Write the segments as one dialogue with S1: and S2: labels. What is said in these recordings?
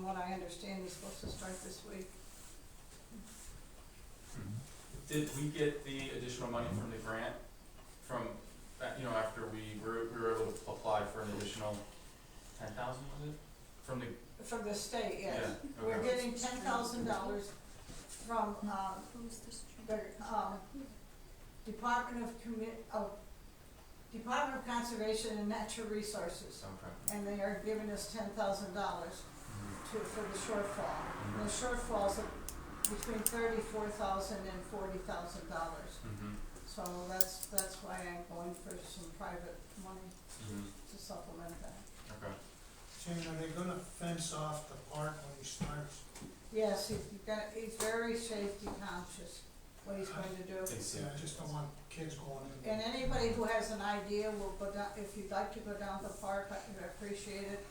S1: what I understand, he's supposed to start this week.
S2: Did we get the additional money from the grant, from, uh, you know, after we were, we were able to apply for an additional ten thousand, was it? From the,
S1: From the state,
S2: yeah,
S1: yes. We're
S2: okay,
S1: getting ten thousand dollars from, um, the, um, Department of Commit, of, Department of Conservation and Natural Resources.
S2: okay.
S1: And they are giving us ten thousand dollars
S2: Mhm.
S1: to, for the shortfall.
S2: Mm-hmm.
S1: And the shortfall's between thirty-four thousand and forty thousand dollars.
S2: Mhm.
S1: So that's, that's why I'm going for some private money
S2: Mhm.
S1: to supplement that.
S2: Okay.
S3: Jane, are they gonna fence off the park when he starts?
S1: Yes, he's got, he's very safety conscious, what he's going to do.
S2: It's,
S3: Yeah, I just don't want kids going in.
S1: And anybody who has an idea will go down, if you'd like to go down to the park, I would appreciate it.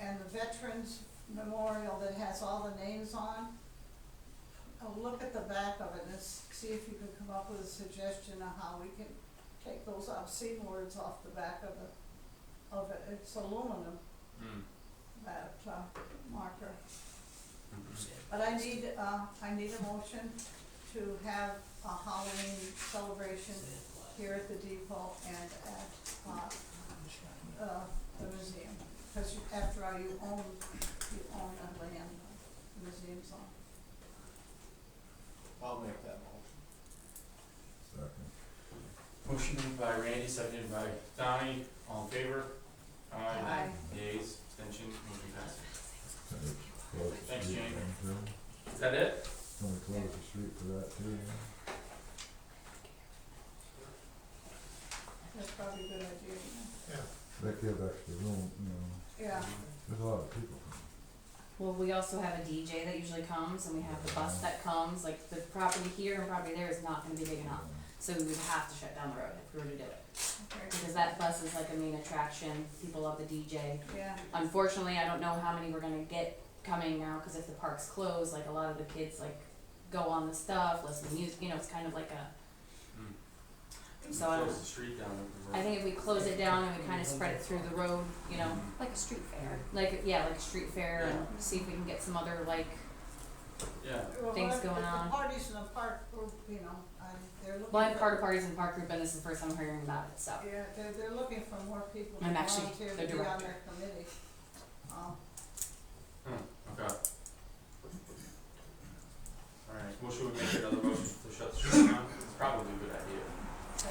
S1: And the Veterans Memorial that has all the names on, uh, look at the back of it and s- see if you can come up with a suggestion of how we can take those obscene words off the back of the, of it. It's aluminum,
S2: mm,
S1: that uh, marker.
S2: mhm.
S1: But I need, uh, I need a motion to have a Halloween celebration here at the depot and at, uh, uh, the museum. Cause you, after all, you own, you own the land, the museum's on.
S4: I'll make that motion.
S2: Motion made by Randy, seconded by Donnie, all in favor?
S1: Aye.
S2: Yays, extension, motion passes. Thanks, Jane. Is that it?
S5: Gonna close the street for that too, yeah.
S1: That's probably a good idea,
S3: Yeah,
S5: That gives extra room, you know,
S1: you know? Yeah,
S2: Mm-hmm.
S5: there's a lot of people coming.
S6: Well, we also have a DJ that usually comes, and we have the bus that comes, like, the property here and property there is not gonna be big enough, so we would have to shut down the road if we were to do it.
S1: okay,
S6: Because that bus is like a main attraction, people love the DJ.
S1: yeah,
S6: Unfortunately, I don't know how many we're gonna get coming now, cause if the park's closed, like, a lot of the kids, like, go on the stuff, listen to music, you know, it's kind of like a,
S2: Mm.
S6: so I don't,
S2: Close the street down. with the road.
S6: I think if we close it down and we kinda spread it through the road, you know,
S2: Mhm.
S7: Like a street fair.
S6: like, yeah, like street fair, and see if we can get some other, like,
S2: Yeah,
S1: Well,
S6: Things
S1: if- if
S6: going on.
S1: the parties in the park, group, you know, I, they're looking.
S6: blind
S1: for-
S6: park parties and park group, and this is the first time hearing about it, so.
S1: Yeah, they're, they're looking for more people to
S6: I'm actually
S1: volunteer to
S6: the
S1: be on
S6: director.
S1: their committee. Um,
S2: Hmm, okay. Alright, well, should we make another motion to shut the street down? It's probably a good idea.
S1: yeah.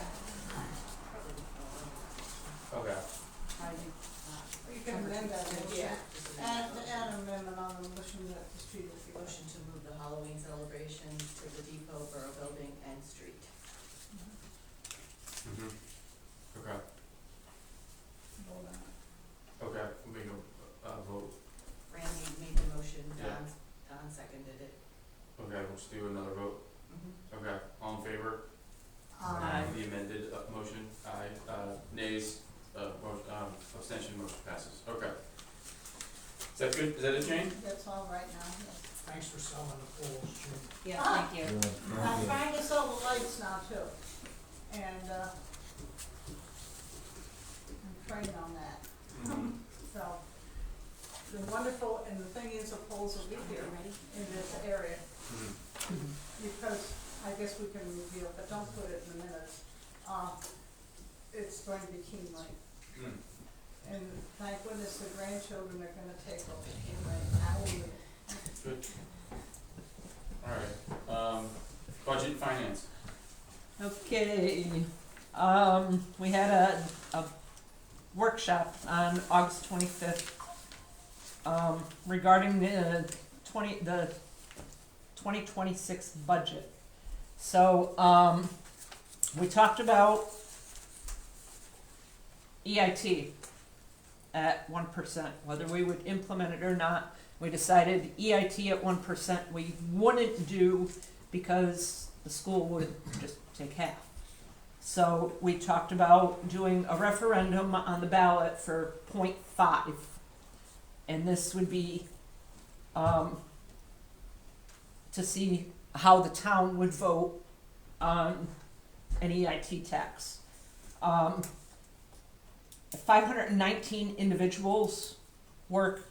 S2: Okay.
S6: I think, uh,
S1: You can amend that motion.
S7: Yeah.
S1: Add, add amendment on the motion that the street is the
S7: Motion to move the Halloween celebration to the depot, borough building, and street.
S2: Mm-hmm. Okay,
S1: Hold on.
S2: okay, we'll make a, a vote.
S7: Randy made the motion,
S2: Yeah.
S7: Don, Don seconded it.
S2: Okay, we'll just do another vote.
S6: Mm-hmm.
S2: Okay, all in favor?
S1: Um,
S2: The amended uh, motion, aye, uh, nays, uh, mo- um, abstention, motion passes, okay. Is that good, is that it, Jane?
S1: that's all right now,
S3: thanks for selling the poles, Jim.
S6: yeah,
S1: Ah.
S6: thank you.
S5: Yeah,
S1: yes. I'm trying to sell the lights now too, and, uh, I'm trained on that,
S2: Mhm.
S1: so. The wonderful, and the thing is, the poles will be here in this area,
S2: Mhm.
S1: because I guess we can reveal, but don't put it in the minutes. Uh, it's going to be Keen Lake.
S2: Mm.
S1: And thank goodness the grandchildren are gonna take over anyway, I will.
S2: Good. Alright, um, budget and finance.
S8: Okay, um, we had a, a workshop on August twenty-fifth, um, regarding the twenty, the twenty twenty-six budget. So, um, we talked about EIT at one percent, whether we would implement it or not. We decided EIT at one percent, we wouldn't do because the school would just take half. So we talked about doing a referendum on the ballot for point five. And this would be, um, to see how the town would vote on an EIT tax. Um, five hundred and nineteen individuals work